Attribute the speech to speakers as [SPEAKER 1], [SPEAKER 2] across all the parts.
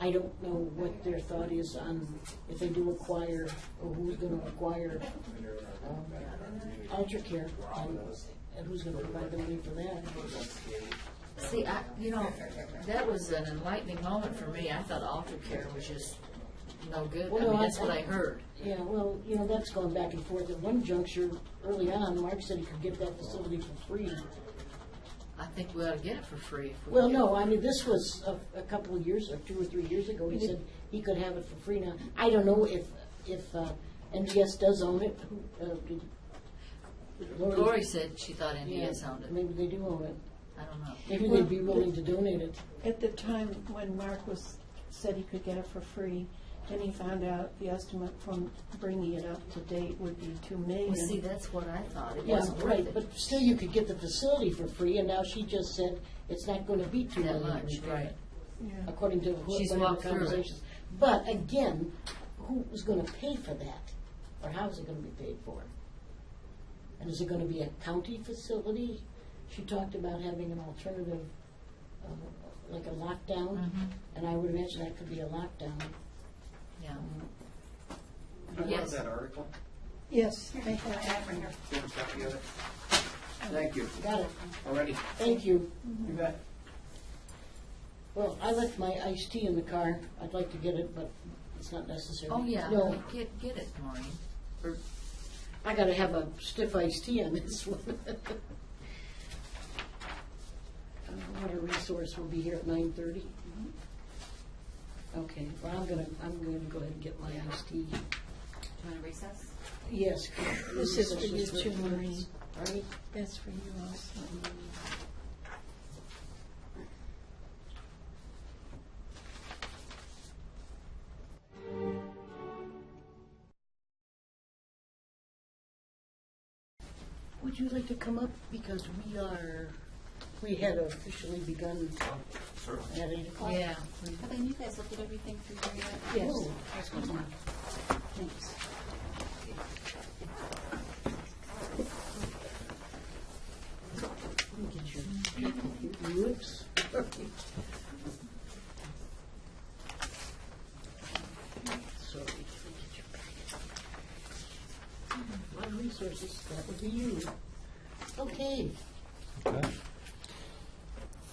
[SPEAKER 1] I don't know what their thought is on if they do acquire, or who's gonna acquire, um, alter care, and and who's gonna provide the money for that.
[SPEAKER 2] See, I, you know, that was an enlightening moment for me. I thought altar care was just no good. I
[SPEAKER 1] Well,
[SPEAKER 2] mean,
[SPEAKER 1] I-
[SPEAKER 2] that's what I heard.
[SPEAKER 1] Yeah, well, you know, that's gone back and forth. At one juncture, early on, Mark said he could get that facility for free.
[SPEAKER 2] I think we ought to get it for free. if we
[SPEAKER 1] Well,
[SPEAKER 2] can.
[SPEAKER 1] no, I mean, this was a, a couple of years, or two or three years ago, he
[SPEAKER 2] Mm-hmm.
[SPEAKER 1] said he could have it for free now. I don't know if, if, uh, NGS does own it, who, uh, did. Lori-
[SPEAKER 2] Lori said she thought
[SPEAKER 1] Yeah,
[SPEAKER 2] India sounded,
[SPEAKER 1] Maybe they do own it.
[SPEAKER 2] I don't know.
[SPEAKER 1] Maybe they'd be willing to donate it.
[SPEAKER 3] At the time when Mark was, said he could get it for free, then he found out the estimate from bringing it up to date would be two
[SPEAKER 2] Well, see,
[SPEAKER 3] million.
[SPEAKER 2] that's what I thought. It
[SPEAKER 1] Yeah,
[SPEAKER 2] wasn't
[SPEAKER 1] right,
[SPEAKER 2] worth it.
[SPEAKER 1] but still you could get the facility for free, and now she just said it's not gonna be too
[SPEAKER 2] That much, right.
[SPEAKER 3] Yeah.
[SPEAKER 1] according to who-
[SPEAKER 2] She's
[SPEAKER 1] whatever
[SPEAKER 2] walked through it.
[SPEAKER 1] conversations. But again, who's gonna pay for that? Or how's it gonna be paid for? And is it gonna be a county facility? She talked about having an alternative, um, like a lockdown,
[SPEAKER 2] Mhm.
[SPEAKER 1] and I would imagine that could be a lockdown.
[SPEAKER 2] Yeah.
[SPEAKER 4] I love
[SPEAKER 2] Yes.
[SPEAKER 4] that article.
[SPEAKER 3] Yes, I
[SPEAKER 5] I
[SPEAKER 3] have.
[SPEAKER 5] have right here.
[SPEAKER 4] Do you have a copy of it? Thank you.
[SPEAKER 1] Got it,
[SPEAKER 4] Already.
[SPEAKER 1] thank you.
[SPEAKER 4] You bet.
[SPEAKER 1] Well, I left my iced tea in the car. I'd like to get it, but it's not necessary.
[SPEAKER 2] Oh, yeah,
[SPEAKER 1] No,
[SPEAKER 2] get, get it, Maureen. Or-
[SPEAKER 1] I gotta have a stiff iced tea on this one. Uh, Water resource will be here at nine thirty. Okay, well, I'm gonna, I'm gonna go ahead and get my iced tea.
[SPEAKER 5] Do you want to recess?
[SPEAKER 1] Yes.
[SPEAKER 3] This is for you too, Maureen.
[SPEAKER 1] All right.
[SPEAKER 3] That's for you also.
[SPEAKER 1] Would you like to come up? Because we are, we had officially begun
[SPEAKER 4] Certainly.
[SPEAKER 1] at eight o'clock.
[SPEAKER 2] Yeah.
[SPEAKER 5] Have any of you guys looked at everything through here yet?
[SPEAKER 1] Yes.
[SPEAKER 5] Thanks.
[SPEAKER 1] Look at your- Whoops. Sorry. My resources, that would be you. Okay,
[SPEAKER 6] Okay.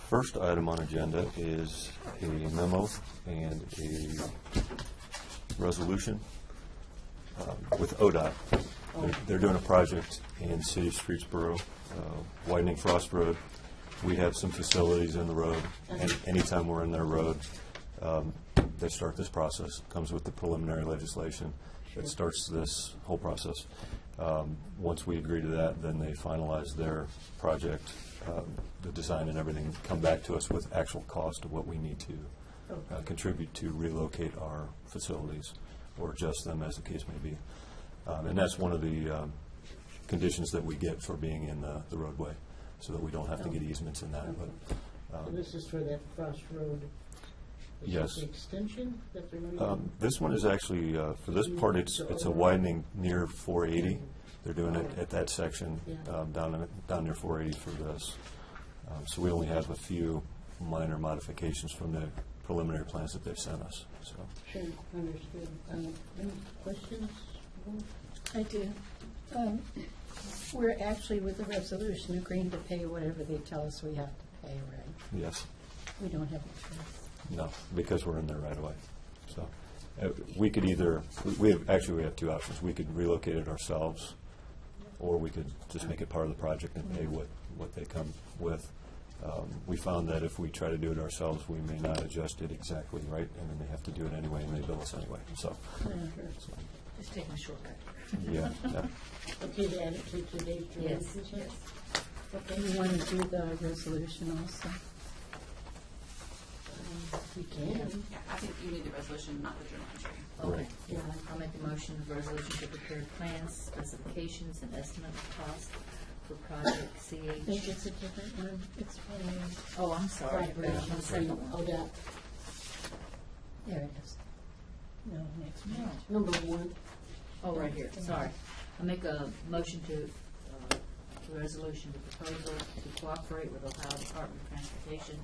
[SPEAKER 6] First item on agenda is a memo and a resolution um, with ODOT. They're- They're doing a project in City of Streetsboro, uh, widening Frost Road. We have some facilities in the road, and anytime we're in their road, um, they start this process. Comes with the preliminary legislation that starts this whole process. Um, Once we agree to that, then they finalize their project, um, the design and everything, come back to us with actual cost of what we need to uh, contribute to relocate our facilities or adjust them as the case may be. Um, And that's one of the um, conditions that we get for being in the the roadway, so that we don't have to get easements in that, but
[SPEAKER 1] so this is for that crossroad. which is
[SPEAKER 6] Yes.
[SPEAKER 1] the Extension that they're running?
[SPEAKER 6] Um, This one is actually, uh, for this part, it's, it's a widening near 480. They're doing it at that section,
[SPEAKER 1] Yeah.
[SPEAKER 6] um, down, in- down near 480 for this. Um, So we only have a few minor modifications from the preliminary plans that they've sent us, so.
[SPEAKER 1] Sure, understood. Uh, Any questions?
[SPEAKER 3] I do. Um, We're actually with the resolution agreeing to pay whatever they tell us we have to pay, right?
[SPEAKER 6] Yes,
[SPEAKER 3] We don't have a choice.
[SPEAKER 6] no, because we're in there right away. So uh, we could either, we- we have, actually, we have two options. We could relocate it ourselves, or we could just make it part of the project and pay what, what they come with. Um, We found that if we try to do it ourselves, we may not adjust it exactly right, and then they have to do it anyway, and they bill us anyway, so. so,
[SPEAKER 2] Just take my shortcut.
[SPEAKER 6] Yeah, yeah.
[SPEAKER 1] Okay, to add it to today's.
[SPEAKER 2] Yes,
[SPEAKER 1] agenda,
[SPEAKER 2] yes.
[SPEAKER 1] Okay.
[SPEAKER 3] Do you want to do the resolution also?
[SPEAKER 1] Um, We can.
[SPEAKER 5] Yeah, I think you need the resolution, not the journal entry.
[SPEAKER 2] Okay.
[SPEAKER 6] Right.
[SPEAKER 2] Yeah, I'll make a motion of resolution to prepare plans, specifications, and estimate of cost for project
[SPEAKER 3] I think
[SPEAKER 2] CH.
[SPEAKER 3] it's a different one. It's for,
[SPEAKER 2] Oh, I'm sorry,
[SPEAKER 1] Right. Oh,
[SPEAKER 2] we're on the second one.
[SPEAKER 1] ODOT,
[SPEAKER 3] there it is. No, next one.
[SPEAKER 2] No.
[SPEAKER 1] number one.
[SPEAKER 2] Oh, right here, sorry. I make a motion to, uh, resolution, the proposal to cooperate with Ohio Department of Transportation